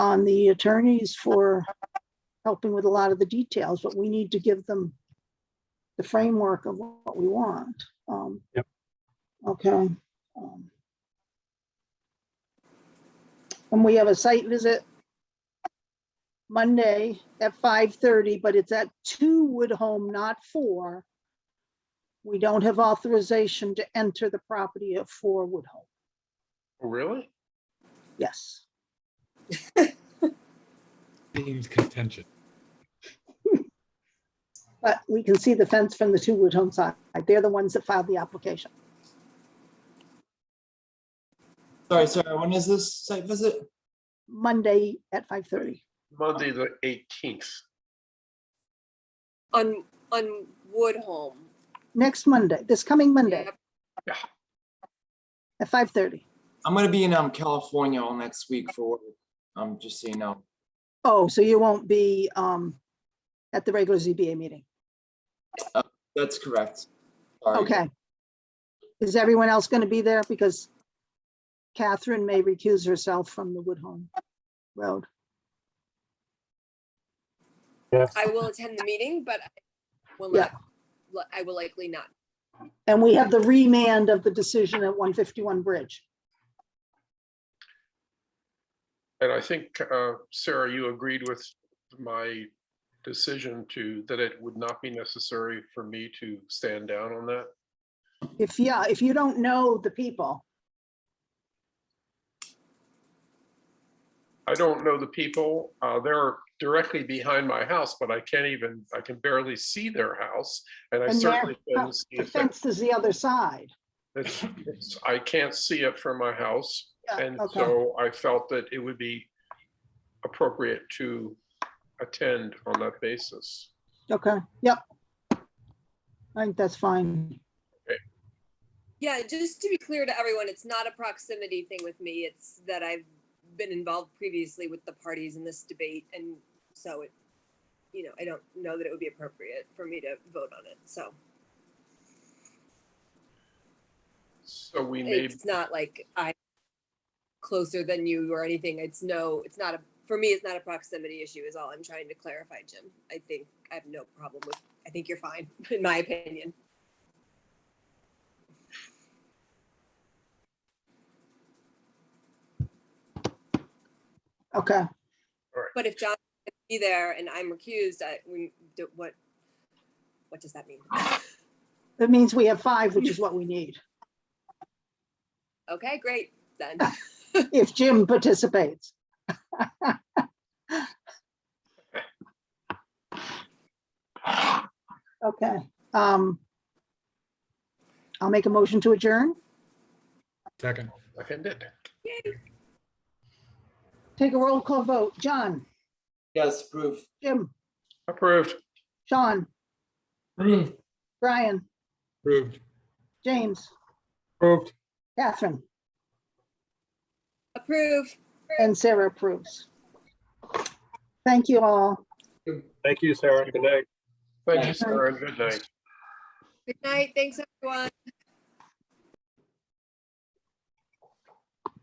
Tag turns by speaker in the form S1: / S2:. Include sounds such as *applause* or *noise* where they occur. S1: on the attorneys for helping with a lot of the details, but we need to give them the framework of what we want. Um,
S2: Yep.
S1: Okay. um, And we have a site visit Monday at five thirty, but it's at two Wood Home, not four. We don't have authorization to enter the property at four Wood Home.
S3: Really?
S1: Yes.
S2: Seems contentious.
S1: But we can see the fence from the two Wood Home side. They're the ones that filed the application.
S4: Sorry, sorry, when is this site visit?
S1: Monday at five thirty.
S3: Monday, the eighteenth.
S5: on, on Woodhome.
S1: Next Monday, this coming Monday
S5: Yep.
S1: at five thirty.
S4: I'm gonna be in, um, California all next week for, work. um, just so you know.
S1: Oh, so you won't be um at the regular ZBA meeting.
S4: That's correct. Sorry.
S1: Okay. Is everyone else going to be there? Because Catherine may recuse herself from the Woodhome Road.
S5: I will attend the meeting, but I will
S1: Yeah.
S5: not, li- I will likely not.
S1: And we have the remand of the decision at one fifty-one Bridge.
S3: And I think, uh, Sarah, you agreed with my decision to, that it would not be necessary for me to stand down on that.
S1: If, yeah, if you don't know the people,
S3: I don't know the people. Uh, They're directly behind my house, but I can't even, I can barely see their house. And I
S1: And their
S3: certainly couldn't see
S1: the
S3: it. from-
S1: fence is the other side.
S3: it's- it's- I can't see it from my house.
S1: Yeah,
S3: And
S1: okay.
S3: so I felt that it would be appropriate to attend on that basis.
S1: Okay, yep. I think that's fine.
S5: Yeah, just to be clear to everyone, it's not a proximity thing with me. It's that I've been involved previously with the parties in this debate and so it, you know, I don't know that it would be appropriate for me to vote on it. So
S3: So we may,
S5: it's not like I'm closer than you or anything. It's no, it's not a, for me, it's not a proximity issue is all I'm trying to clarify, Jim. I think I have no problem with, I think you're fine, *laughs* in my opinion.
S1: Okay,
S5: But if John can be there and I'm recused, I, we, do- what, what does that mean?
S1: that means we have five, which is what we need,
S5: Okay, great, then.
S1: if Jim participates. Okay, um. I'll make a motion to adjourn.
S2: Second,
S3: I can did.
S5: Yay.
S1: Take a roll call vote. John,
S4: Yes, proof.
S1: Jim,
S3: Approved.
S1: Sean,
S4: Proof.
S1: Brian,
S2: approved.
S1: James,
S2: Approved.
S1: Catherine,
S5: Approve.
S1: and Sarah approves. Thank you all.
S6: Thank you, Sarah. Good night.
S3: Thank you, Sarah, and good night.
S5: Good night, thanks, everyone.